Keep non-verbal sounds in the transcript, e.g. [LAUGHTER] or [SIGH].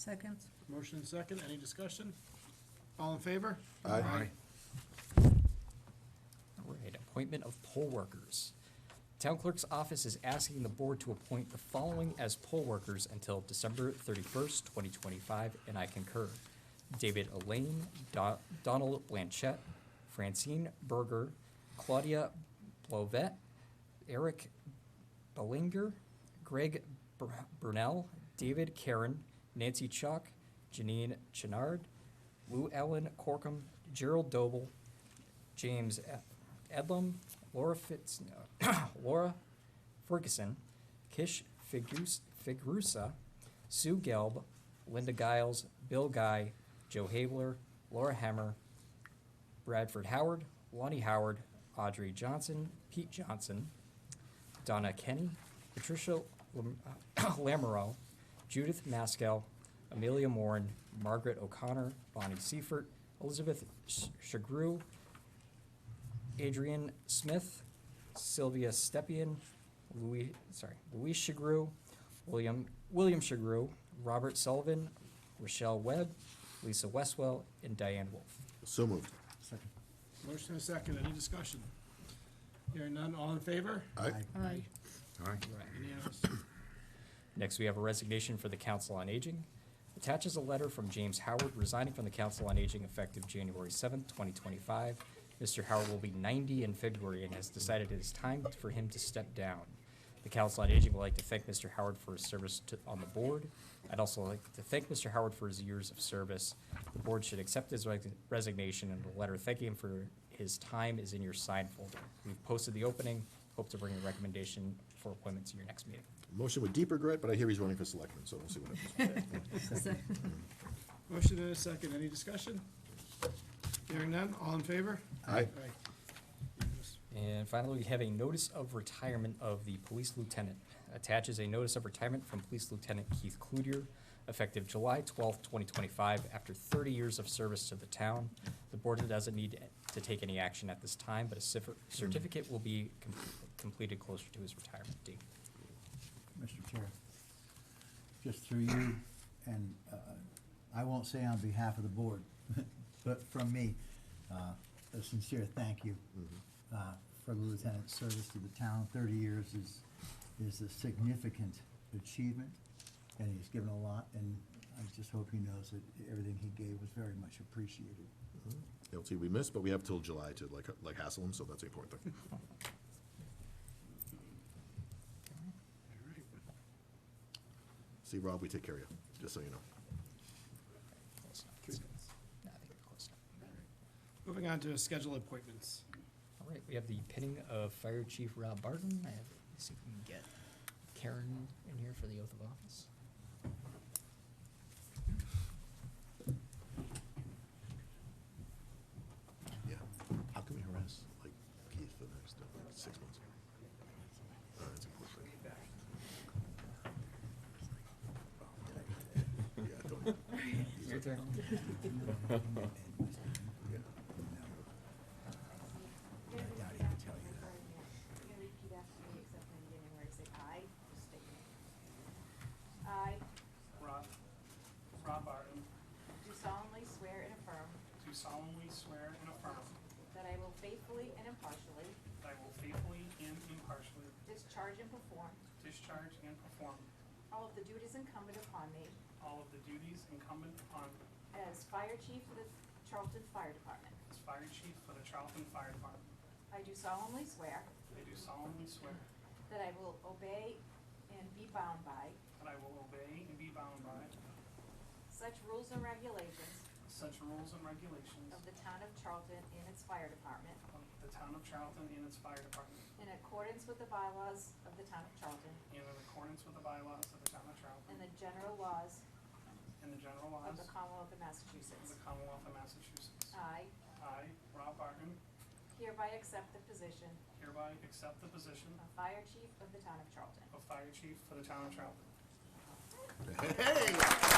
Second. Motion and second, any discussion? All in favor? Aye. All right, appointment of poll workers. Town Clerk's Office is asking the board to appoint the following as poll workers until December thirty-first, twenty twenty-five, and I concur. David Elaine, Do- Donald Blanchette, Francine Berger, Claudia Blovet, Eric Bellinger, Greg Br- Brunel, David Karen, Nancy Chalk, Janine Chenard, Lou Ellen Corkum, Gerald Doble, James E- Edlam, Laura Fitz, no, [COUGHS] Laura Ferguson, Kish Figrus- Figrusa, Sue Gelb, Linda Giles, Bill Guy, Joe Habler, Laura Hammer, Bradford Howard, Lonnie Howard, Audrey Johnson, Pete Johnson, Donna Kenny, Patricia Lam- [COUGHS] Lamoureux, Judith Maskell, Amelia Morin, Margaret O'Connor, Bonnie Seifert, Elizabeth Sh- Shagru, Adrian Smith, Sylvia Stepien, Louis, sorry, Louis Shagru, William, William Shagru, Robert Sullivan, Rochelle Webb, Lisa Westwell, and Diane Wolfe. So moved. Motion and second, any discussion? Hearing none, all in favor? Aye. Aye. Aye. Unanimous. Next, we have a resignation for the Council on Aging. Attaches a letter from James Howard resigning from the Council on Aging effective January seventh, twenty twenty-five. Mr. Howard will be ninety in February and has decided it is time for him to step down. The Council on Aging would like to thank Mr. Howard for his service to, on the board. I'd also like to thank Mr. Howard for his years of service. The board should accept his resi- resignation and the letter thanking him for his time is in your sign folder. We've posted the opening, hope to bring a recommendation for appointment to your next meeting. Motion with deep regret, but I hear he's running for selectman, so we'll see what happens. Motion and a second, any discussion? Hearing none, all in favor? Aye. Unanimous. And finally, we have a notice of retirement of the police lieutenant. Attaches a notice of retirement from Police Lieutenant Keith Cludier, effective July twelfth, twenty twenty-five, after thirty years of service to the town. The board doesn't need to take any action at this time, but a cif- certificate will be com- completed closer to his retirement date. Mr. Chair, just through you, and uh, I won't say on behalf of the board, [LAUGHS] but from me, uh, a sincere thank you uh, for the lieutenant's service to the town. Thirty years is, is a significant achievement, and he's given a lot, and I just hope he knows that everything he gave was very much appreciated. [LAUGHS] They'll see we missed, but we have till July to like, like hassle him, so that's the important thing. All right. See, Rob, we take care of you, just so you know. Close enough. That's good. No, I think we're close enough. Moving on to schedule appointments. All right, we have the pinning of Fire Chief Rob Barton. I have, let's see if we can get Karen in here for the oath of office. Yeah. How can we harass, like, Keith for the next uh, six months? Uh, That's important. Yeah, don't. [LAUGHS] Your turn. Yeah. I doubt he can tell you that. You're gonna repeat after me, except for the beginning where you say I, just state your name. I Rob, Rob Barton, do solemnly swear and affirm do solemnly swear and affirm that I will faithfully and impartially that I will faithfully and impartially discharge and perform discharge and perform all of the duties incumbent upon me all of the duties incumbent upon me as Fire Chief of the Charlton Fire Department. as Fire Chief for the Charlton Fire Department. I do solemnly swear I do solemnly swear that I will obey and be bound by that I will obey and be bound by such rules and regulations such rules and regulations of the town of Charlton and its fire department of the town of Charlton and its fire department, in accordance with the bylaws of the town of Charlton and in accordance with the bylaws of the town of Charlton and the general laws and the general of laws the Uh. of Commonwealth of the Massachusetts. Commonwealth of Massachusetts. I I, Rob Barton, hereby accept the position hereby accept the position of Fire Chief of the Town of Charlton. of Fire Chief for the town of Charlton. Hey!